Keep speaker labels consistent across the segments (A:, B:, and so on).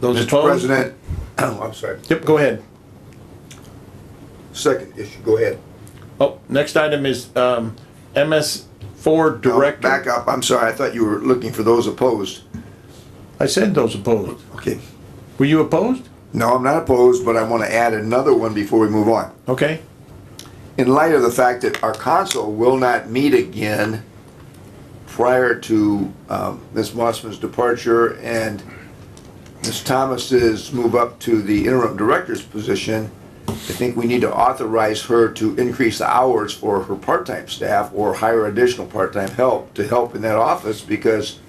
A: Those
B: Mr.
A: opposed?
B: President, Oh, I'm sorry.
A: Yep, go ahead.
B: Second issue, go ahead.
A: Oh, next item is, um, MS four
B: No,
A: director.
B: Back up, I'm sorry, I thought you were looking for those opposed.
A: I said those opposed.
B: Okay.
A: Were you opposed?
B: No, I'm not opposed, but I want to add another one before we move on.
A: Okay,
B: In light of the fact that our council will not meet again prior to um, Ms. Mossman's departure and Ms. Thomas's move up to the interim director's position, I think we need to authorize her to increase the hours for her part-time staff or hire additional part-time help to help in that office because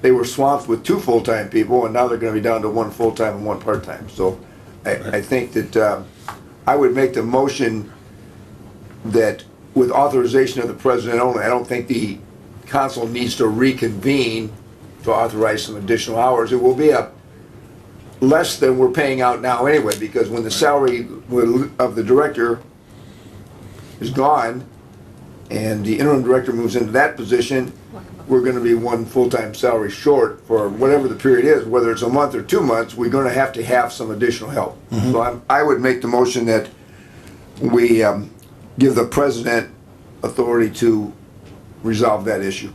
B: they were swamped with two full-time people and now they're gonna be down to one full-time and one part-time. So I, I think that, um, I would make the motion that with authorization of the president only, I don't think the council needs to reconvene to authorize some additional hours. It will be a less than we're paying out now anyway, because when the salary will- of the director is gone and the interim director moves into that position, we're gonna be one full-time salary short for whatever the period is, whether it's a month or two months, we're gonna have to have some additional help. So I'm, I would make the motion that we um, give the president authority to resolve that issue.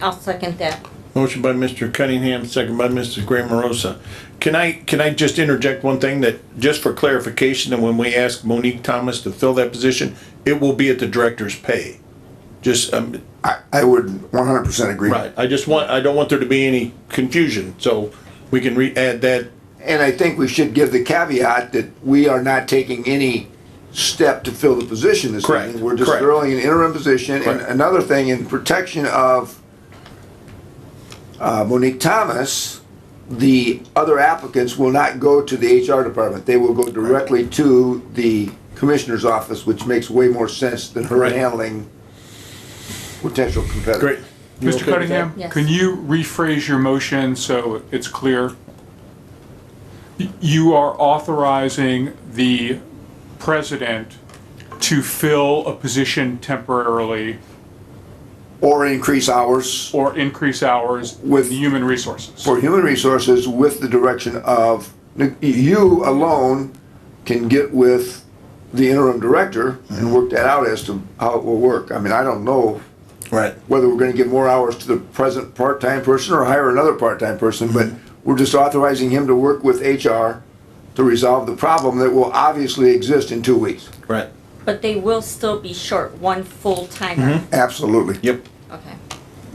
C: I'll second that.
A: motion by Mr. Cunningham, second by Mrs. Graham Rosa. Can I, can I just interject one thing that, just for clarification, and when we ask Monique Thomas to fill that position, it will be at the director's pay. Just, um,
B: I, I would 100% agree.
A: right, I just want, I don't want there to be any confusion, so we can re-add that
B: And I think we should give the caveat that we are not taking any step to fill the position this
A: Correct,
B: evening. We're just
A: correct.
B: throwing an interim position. And
A: Correct.
B: another thing, in protection of uh, Monique Thomas, the other applicants will not go to the HR department. They will go directly to the commissioner's office, which makes way more sense than her
A: Right.
B: handling potential competitors.
A: Great. You okay
D: Mr.
A: with that?
D: Cunningham,
C: Yes.
D: can you rephrase your motion so it's clear? Y- You are authorizing the president to fill a position temporarily
B: Or increase hours.
D: or increase hours
B: With-
D: with human resources.
B: for human resources with the direction of, you alone can get with the interim director and work that out as to how it will work. I mean, I don't know
A: Right.
B: whether we're gonna give more hours to the present part-time person or hire another part-time person, but we're just authorizing him to work with HR to resolve the problem that will obviously exist in two weeks.
A: Right.
C: But they will still be short one full
A: Mm-hmm.
C: timer.
B: Absolutely.
A: Yep.
C: Okay.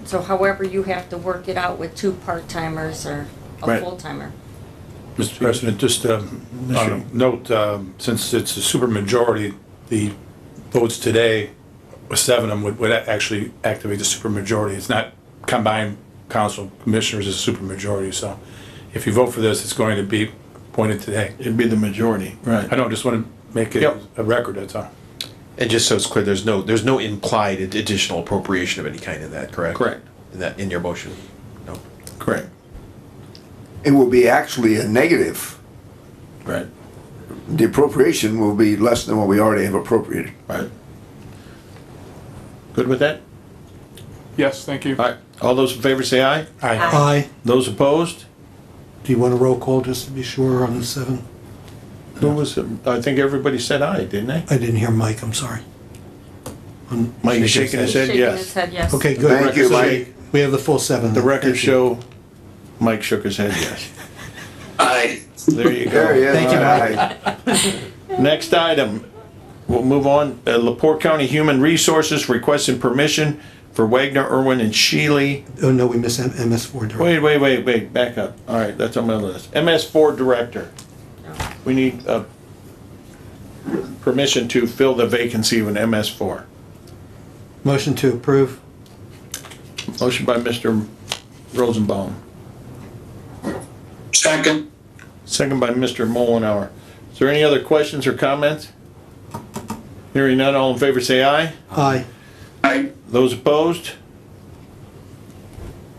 C: So however you have to work it out with two part timers or a
A: Right.
C: full timer.
E: Mr. President, just um, on a note, um, since it's a supermajority, the votes today, seven of them would- would actually activate the supermajority. It's not combined council commissioners, it's a supermajority. So if you vote for this, it's going to be appointed today.
A: It'd be the majority. Right.
E: I don't, just want to make it
A: Yep.
E: a record, that's all.
F: And just so it's clear, there's no, there's no implied ad- additional appropriation of any kind in that, correct?
A: Correct.
F: In that, in your motion? No.
A: Correct.
B: It will be actually a negative.
A: Right.
B: The appropriation will be less than what we already have appropriated.
A: Right. Good with that?
D: Yes, thank you.
A: All right. All those in favor say aye.
C: Aye.
G: Aye.
A: Those opposed?
G: Do you want a roll call just to be sure on the seven?
A: Who was, I think everybody said aye, didn't they?
G: I didn't hear Mike, I'm sorry.
A: Mike is shaking his head,
C: Shaking his
A: yes.
C: head, yes.
G: Okay, good.
B: Thank you, Mike.
G: We have the full seven.
A: The records
G: Thank you.
A: show Mike shook his head, yes. Aye. There you
B: There he
A: go.
B: is.
G: Thank you,
B: All
G: Mike.
B: right.
A: Next item, we'll move on. Uh, Lepore County Human Resources requesting permission for Wagner, Irwin, and Shealy
G: Oh, no, we missed M- MS four director.
A: Wait, wait, wait, wait, back up. All right, that's on my list. MS four director. We need, uh, permission to fill the vacancy with MS four.
G: Motion to approve.
A: Motion by Mr. Rosenbaum.
H: Second,
A: Second by Mr. Mullenhour. Is there any other questions or comments? Hearing none, all in favor say aye.
G: Aye.
H: I,
A: Those opposed?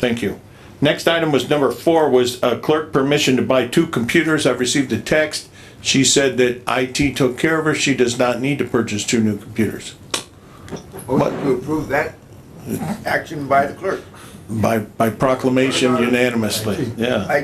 A: Thank you. Next item was number four, was uh, clerk permission to buy two computers. I've received a text. She said that IT took care of her. She does not need to purchase two new computers.
B: Motion to approve that action by the clerk.
A: By, by proclamation unanimously, yeah.